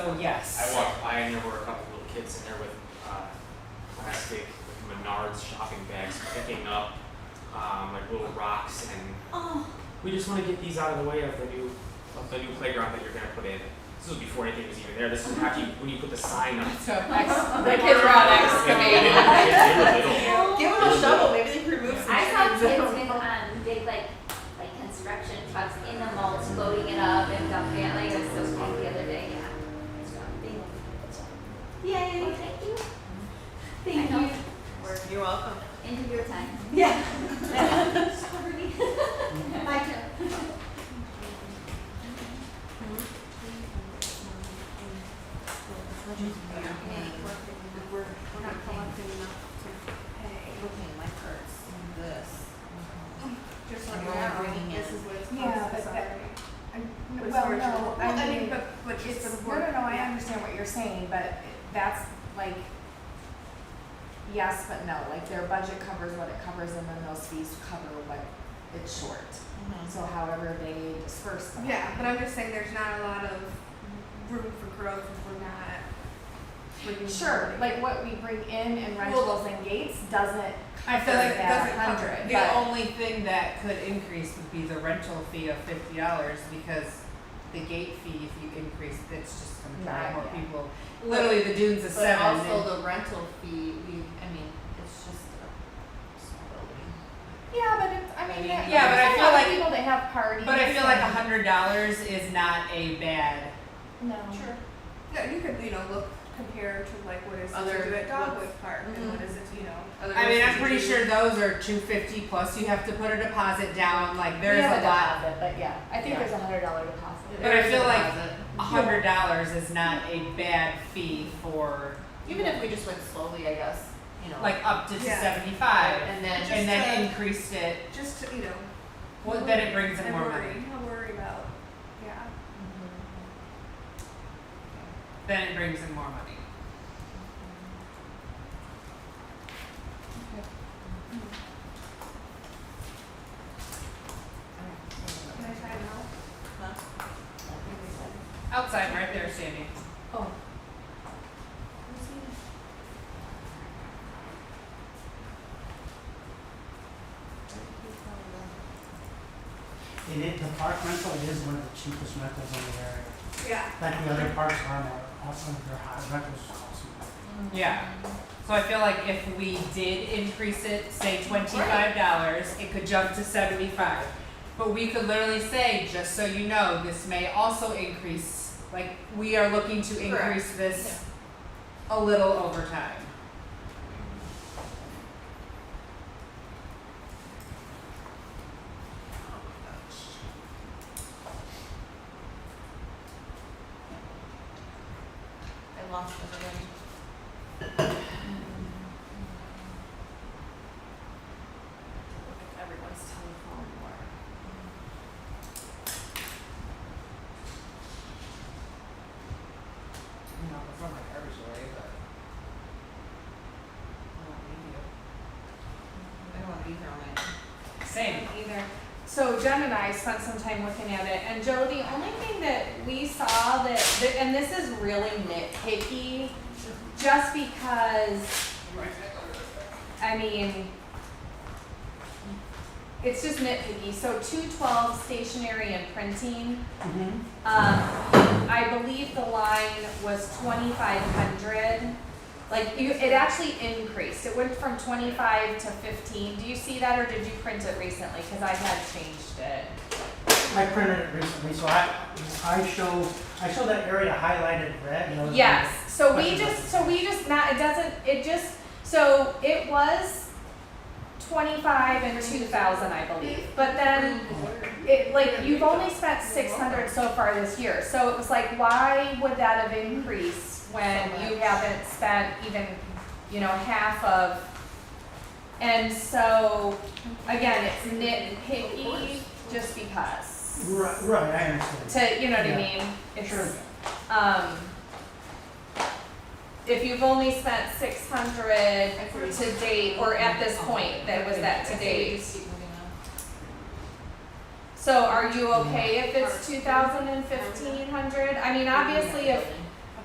So I yes. walked by and there were a couple little kids in there with uh, plastic with Menards shopping bags picking up um, like little rocks and Oh, we just want to get these out of the way of the new of the new playground that you're gonna put in. This was before anything was even there. This was after you, when you put the sign up. So ex- the kids were on excavating. They were little. give them a shovel, maybe they can remove some. I trees. saw kids with um big like like construction trucks in the mulch loading it up and dumping it like it was so cool the other day, yeah. So, Yay, thank you. Thank you. Work You're welcome. into your time. Yeah. Sorry. Bye, Joe. We're, we're not collecting enough to pay. looking at my cards and this. Just And like we're only now, bringing this in- is what it's Yeah, supposed to but be. that- But it's Well, for no, children. I mean, but, but it's for it's, the no, board. no, no, I Yeah. understand what you're saying, but that's like, yes, but no, like their budget covers what it covers and then those fees cover what it's short. So however they disperse them. Yeah, but I'm just saying there's not a lot of room for growth if we're not. bringing Sure, more money. like what we bring in in rentals and gates doesn't cover that hundred, The only thing that could increase would be the rental fee of fifty dollars because the gate fee, if you increase, it's just gonna Right, drive more yeah. people. Literally, the dunes is But seven. also the rental fee, we, I mean, it's just a small building. Yeah, but it's, I mean, yeah, Yeah, but I there's a feel lot of like- people that have parties. and- But I feel like a and- hundred dollars is not a bad. No. Sure. No, you could, you know, look, compare to like what is Other it to do at Dogwood Park and Mhm. what is it, you know, other. I mean, I'm pretty institutions. sure those are two fifty plus. You have to put a deposit down. Like We there's have a lot. deposit, But yeah, I think Yeah. there's a hundred dollar deposit. But I There's feel a like deposit. a hundred dollars is not a bad fee for Even if we just went slowly, I guess, you know. like up to Yeah. seventy five, And then, and then Just, uh, increased it. Just to, you know. Well, then it brings in and more worry, money. Not worry about, yeah. Then it brings in more money. Can I try it out? Outside, right there, Sandy. And it, the park rental is one of the cheapest rentals in the area. Yeah. Like the other parks around there, also their high rentals are awesome. Mm-hmm. Yeah. So I feel like if we did increase it, say twenty-five dollars, it could jump to seventy-five. But we could literally say, just so you know, this may also increase, like, we are looking to increase this a little over time. I lost it already. Look at everyone's telephone or. No, that's not my garbage away, but. I don't need you. I don't wanna be here all night. Same. Either. So Jen and I spent some time looking at it, and Joe, the only thing that we saw that, that- and this is really nitpicky, just because, I mean, it's just nitpicky. So two twelve stationery and printing, Mm-hmm. Um, I believe the line was twenty-five hundred. Like, you, it actually increased. It went from twenty-five to fifteen. Do you see that, or did you print it recently? Cause I had changed it. I printed it recently, so I, I show, I show that area highlighted red, you know. Yes, so we Question. just, so we just not, it doesn't, it just, so it was twenty-five and two thousand, I believe. But then it like you've only spent six hundred so far this year, so it was like, why would that have increased when you haven't spent even, you know, half of? And so, again, it's nitpicky just because. Right, right, I understand. To, you know what I Yeah. mean? It's- Sure. Um, if you've only spent six hundred to date, or at this point, that was that to I say date. we just keep moving on. So are you okay if it's two thousand and fifteen hundred? I mean, obviously, if,